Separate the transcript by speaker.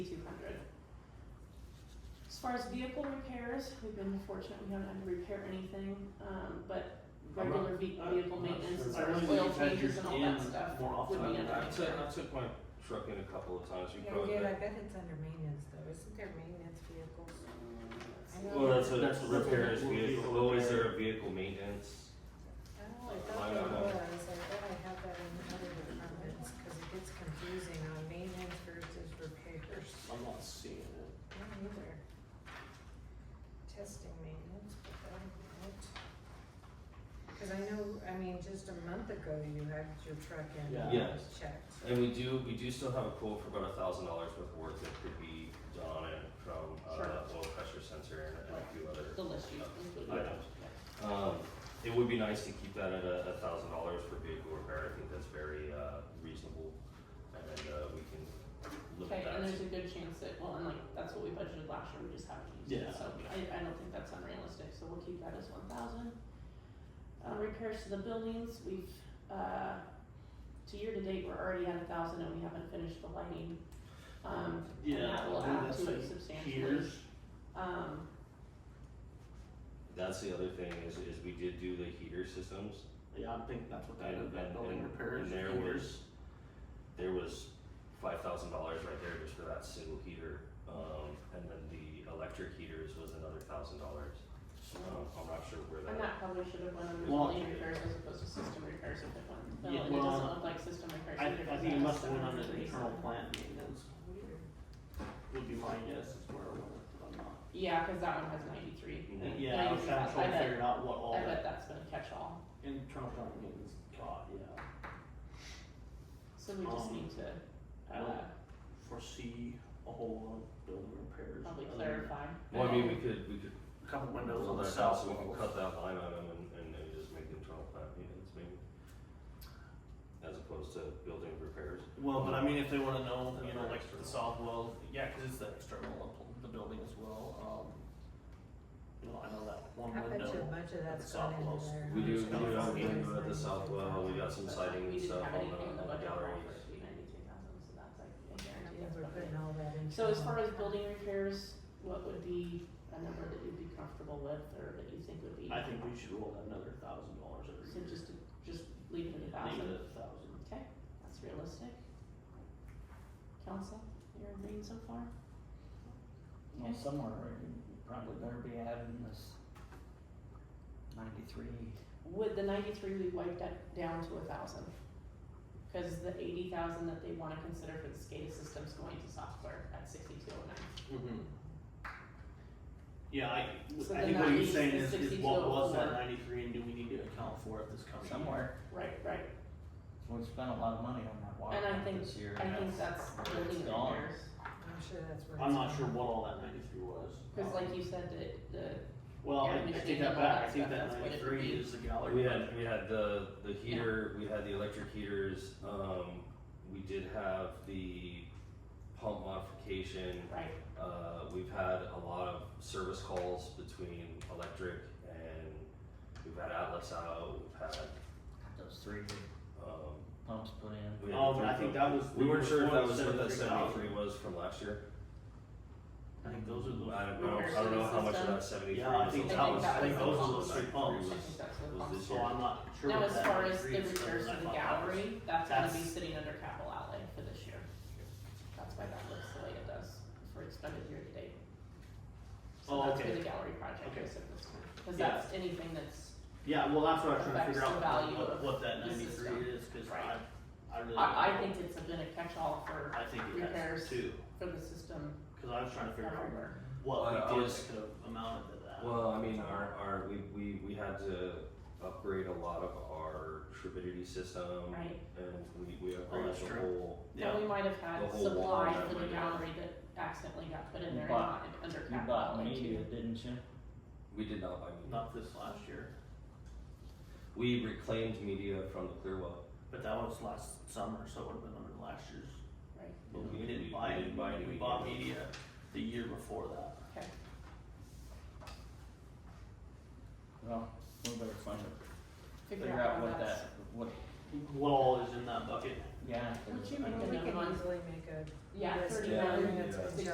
Speaker 1: far as vehicle repairs, we've been fortunate, we haven't had to repair anything, um, but
Speaker 2: I'm not-
Speaker 1: regular ve-
Speaker 2: I'm
Speaker 1: vehicle
Speaker 2: not
Speaker 1: maintenance,
Speaker 2: sure.
Speaker 1: as
Speaker 2: I
Speaker 1: far as
Speaker 2: really
Speaker 1: oil
Speaker 2: need to add
Speaker 1: changes
Speaker 2: your
Speaker 1: and all that
Speaker 2: in
Speaker 1: stuff
Speaker 2: more
Speaker 1: would
Speaker 2: often.
Speaker 1: be under
Speaker 2: I took,
Speaker 1: repair.
Speaker 2: I took my truck in a couple of times, you
Speaker 3: Yeah,
Speaker 2: probably.
Speaker 3: dude, I
Speaker 2: bet.
Speaker 3: bet it's under maintenance though, isn't there maintenance vehicles? I know
Speaker 2: Well, that's
Speaker 3: that-
Speaker 2: a, that's a
Speaker 3: That's
Speaker 2: repair is
Speaker 3: a
Speaker 2: vehicle,
Speaker 4: vehicle
Speaker 2: oh, is
Speaker 4: repair.
Speaker 2: there a vehicle maintenance?
Speaker 3: Oh, I
Speaker 2: Like,
Speaker 3: thought
Speaker 2: I
Speaker 3: there
Speaker 2: don't know.
Speaker 3: was, I thought I had that in other departments, cause it gets confusing on maintenance versus repairs.
Speaker 2: I'm not seeing it.
Speaker 3: I don't either. Testing maintenance, but that, what? Cause I know, I mean, just a month ago you had your truck in
Speaker 2: Yeah.
Speaker 3: uh,
Speaker 2: Yes.
Speaker 3: checked.
Speaker 2: And we do, we do still have a quote for about a thousand dollars worth of work that could be done on it from,
Speaker 1: Sure.
Speaker 2: uh, oil pressure sensor and and a few other
Speaker 1: The list you included.
Speaker 2: items. Um, it would be nice to keep that at a, a thousand dollars for vehicle repair, I think that's very, uh, reasonable. And then, uh, we can look
Speaker 1: Okay,
Speaker 2: at that.
Speaker 1: and there's a good chance that, well, and like, that's what we budgeted last year, we just haven't used
Speaker 2: Yeah.
Speaker 1: it, so I, I don't think that's unrealistic, so we'll keep that as one thousand. Uh, repairs to the buildings, we've, uh, to year to date, we're already at a thousand and we haven't finished the lighting. Um, and that will add to it substantially. Um,
Speaker 2: That's the other thing is, is we did do the heater systems.
Speaker 4: Yeah, I think that's what that
Speaker 2: And-
Speaker 4: is, that
Speaker 2: and-
Speaker 4: building
Speaker 2: and-
Speaker 4: repairs.
Speaker 2: And there was, there was five thousand dollars right there just for that single heater. Um, and then the electric heaters was another thousand dollars. Um, I'm not sure where
Speaker 1: and that
Speaker 2: that,
Speaker 1: probably should have went under
Speaker 4: Well-
Speaker 1: building repairs as opposed to system repairs if it went,
Speaker 4: Yeah,
Speaker 1: well, and it
Speaker 4: well,
Speaker 1: doesn't look like system repairs.
Speaker 4: I,
Speaker 1: either,
Speaker 4: I
Speaker 1: but
Speaker 4: think
Speaker 1: that's
Speaker 4: it must have went under
Speaker 1: 700
Speaker 4: the
Speaker 1: reason.
Speaker 4: internal plant maintenance, would be my guess, is where it went, but I'm not.
Speaker 1: Yeah, cause that one has ninety-three.
Speaker 2: Mhm.
Speaker 4: And yeah, I was trying to
Speaker 1: I
Speaker 4: try to
Speaker 1: bet-
Speaker 4: figure out what all
Speaker 1: I bet
Speaker 4: that
Speaker 1: that's been a catch-all,
Speaker 4: internal plant maintenance got, yeah.
Speaker 1: so we just
Speaker 4: Um,
Speaker 1: need to,
Speaker 4: I don't
Speaker 1: uh,
Speaker 4: Foresee a whole lot of building repairs.
Speaker 1: probably
Speaker 4: other than
Speaker 1: clarify.
Speaker 2: well, I mean, we could, we could.
Speaker 4: A couple windows on
Speaker 2: Well,
Speaker 4: the
Speaker 2: that's
Speaker 4: south
Speaker 2: also- We can
Speaker 4: wall.
Speaker 2: cut that line item and, and then just make internal plant maintenance maybe. As opposed to building repairs.
Speaker 4: Well, but I mean, if they wanna know, you know,
Speaker 2: Another
Speaker 4: like
Speaker 2: external.
Speaker 4: the south well, yeah, cause it's the external of the building as well, um. You know, I know that one
Speaker 3: I bet you a
Speaker 4: window,
Speaker 3: bunch of
Speaker 4: the
Speaker 3: that's gone
Speaker 4: soft walls.
Speaker 3: into there.
Speaker 2: We do, we do
Speaker 4: Yeah.
Speaker 2: have a window at the
Speaker 3: Nice.
Speaker 2: south well, we got some
Speaker 1: But, like,
Speaker 2: siding
Speaker 1: we
Speaker 2: and
Speaker 1: didn't have
Speaker 2: stuff on
Speaker 1: anything in the
Speaker 2: the, on the
Speaker 1: budget for
Speaker 2: galleries.
Speaker 1: it to be ninety-two thousand, so that's like, I
Speaker 3: I
Speaker 1: guarantee
Speaker 3: think
Speaker 1: that's
Speaker 3: we're
Speaker 1: probably.
Speaker 3: putting all that into.
Speaker 1: So as far as building repairs, what would be a number that you'd be comfortable with, or that you think would be,
Speaker 4: I think we should roll that another thousand dollars every
Speaker 1: so
Speaker 4: year.
Speaker 1: just to, just leave it at a
Speaker 4: Leave
Speaker 1: thousand,
Speaker 4: it at a thousand.
Speaker 1: okay, that's realistic. Council, you're agreeing so far?
Speaker 5: Well, somewhere you probably better be adding this ninety-three.
Speaker 1: With the ninety-three, we wiped that down to a thousand. Cause the eighty thousand that they wanna consider for the SCADA system's going to software at sixty-two oh nine.
Speaker 4: Mm-hmm. Yeah, I,
Speaker 1: So
Speaker 4: I
Speaker 1: the
Speaker 4: think what you're
Speaker 1: 90s
Speaker 4: saying
Speaker 1: is
Speaker 4: is, is
Speaker 1: 62
Speaker 4: what was
Speaker 1: over.
Speaker 4: that ninety-three and do we need to account for it this coming year?
Speaker 5: Somewhere,
Speaker 1: Right, right.
Speaker 5: we've spent a lot of money on that water
Speaker 1: And I
Speaker 5: pump
Speaker 1: think-
Speaker 5: this year.
Speaker 1: I
Speaker 5: and
Speaker 1: think that's building
Speaker 5: It's gone.
Speaker 1: repairs.
Speaker 3: I'm sure that's where.
Speaker 4: I'm
Speaker 3: it's
Speaker 4: not
Speaker 3: going.
Speaker 4: sure what all that ninety-three was.
Speaker 1: Cause like you said, the, the,
Speaker 4: Well, I,
Speaker 1: Yeah,
Speaker 4: I take
Speaker 1: machine and all
Speaker 4: that back,
Speaker 1: that
Speaker 4: I think
Speaker 1: stuff,
Speaker 4: that
Speaker 1: that's what it would
Speaker 4: ninety-three
Speaker 1: be.
Speaker 4: is the gallery.
Speaker 2: Oh, We had, we had the, the heater, we had the electric heaters, um, we did have the pump modification.
Speaker 1: right,
Speaker 2: Uh, we've had a lot of service calls between electric and we've had Atlas out, we've had,
Speaker 5: Those three big
Speaker 2: um,
Speaker 5: pumps put in.
Speaker 2: we had.
Speaker 4: Um,
Speaker 2: three
Speaker 4: I think
Speaker 2: pump-
Speaker 4: that was.
Speaker 2: We weren't sure if
Speaker 4: before
Speaker 2: that was
Speaker 4: the
Speaker 2: what that
Speaker 4: 73,000.
Speaker 2: seventy-three was from last year.
Speaker 4: I think those
Speaker 2: I don't,
Speaker 4: are
Speaker 2: I
Speaker 4: the.
Speaker 2: don't, I don't know how much of that seventy-three
Speaker 4: Yeah, I
Speaker 2: was.
Speaker 4: think
Speaker 2: from
Speaker 1: that
Speaker 2: last
Speaker 1: was-
Speaker 2: year.
Speaker 1: I think those
Speaker 4: were the three pumps.
Speaker 1: I think that's what
Speaker 2: Was
Speaker 1: costs.
Speaker 2: this
Speaker 4: So I'm not sure.
Speaker 1: Now,
Speaker 4: what
Speaker 1: as
Speaker 4: that
Speaker 1: far as the
Speaker 4: 93 is,
Speaker 1: repairs
Speaker 4: but
Speaker 1: to
Speaker 4: I
Speaker 1: the
Speaker 4: thought that was-
Speaker 1: gallery, that's gonna be
Speaker 4: that's-
Speaker 1: sitting under capital outlay for this year. That's why that looks the way it does for expended year to date. So
Speaker 4: Oh,
Speaker 1: that's for
Speaker 4: okay.
Speaker 1: the gallery project,
Speaker 4: Okay.
Speaker 1: is at this time, cause
Speaker 4: Yeah.
Speaker 1: that's anything that's,
Speaker 4: Yeah, well, that's what I was trying to
Speaker 1: affects
Speaker 4: figure
Speaker 1: the
Speaker 4: out,
Speaker 1: value
Speaker 4: what,
Speaker 1: of
Speaker 4: what that
Speaker 1: the system.
Speaker 4: ninety-three is, cause
Speaker 1: Right.
Speaker 4: I, I really.
Speaker 1: I, I
Speaker 4: don't know.
Speaker 1: think it's been a catch-all for,
Speaker 4: I think it
Speaker 1: repairs.
Speaker 4: has two,
Speaker 1: for the system
Speaker 4: cause I was trying to figure out
Speaker 1: everywhere.
Speaker 2: Well, I
Speaker 4: what we did
Speaker 2: was-
Speaker 4: that could have amounted to that.
Speaker 2: Well, I mean, our, our, we, we, we had to upgrade a lot of our turbidity system.
Speaker 1: Right.
Speaker 2: And we, we
Speaker 4: Oh,
Speaker 2: upgraded
Speaker 4: that's
Speaker 2: the
Speaker 4: true.
Speaker 2: whole,
Speaker 4: Yeah,
Speaker 1: Now, we might have
Speaker 2: The
Speaker 1: had
Speaker 2: whole wall
Speaker 1: supplies
Speaker 2: that
Speaker 1: for the
Speaker 2: went in.
Speaker 1: gallery that accidentally got put in
Speaker 5: You
Speaker 1: there and
Speaker 5: bought-
Speaker 1: not under
Speaker 5: You
Speaker 1: capital
Speaker 5: bought
Speaker 1: outlay
Speaker 5: media,
Speaker 1: too.
Speaker 5: didn't you?
Speaker 2: we did not buy media.
Speaker 4: not this last year,
Speaker 2: We reclaimed media from the Clearwell,
Speaker 4: but that was last summer, so it would have been under last year's.
Speaker 1: Right.
Speaker 2: but
Speaker 4: You know,
Speaker 2: we
Speaker 4: didn't
Speaker 2: we-
Speaker 4: buy
Speaker 2: we didn't buy any
Speaker 4: We
Speaker 2: media.
Speaker 4: bought media the year before that.
Speaker 5: Well, we better find it,
Speaker 1: Figure
Speaker 5: figure out
Speaker 1: out
Speaker 5: what
Speaker 1: how that's.
Speaker 5: that, what,
Speaker 4: What all is in that bucket?
Speaker 5: yeah.
Speaker 1: Would you
Speaker 5: I
Speaker 1: make
Speaker 5: don't-
Speaker 3: Well, we
Speaker 1: Another
Speaker 3: can
Speaker 1: one.
Speaker 3: easily make a
Speaker 1: Yeah,
Speaker 3: list of
Speaker 1: thirty
Speaker 2: Yeah,
Speaker 1: nine.
Speaker 3: everything that's
Speaker 2: yeah.
Speaker 3: been done.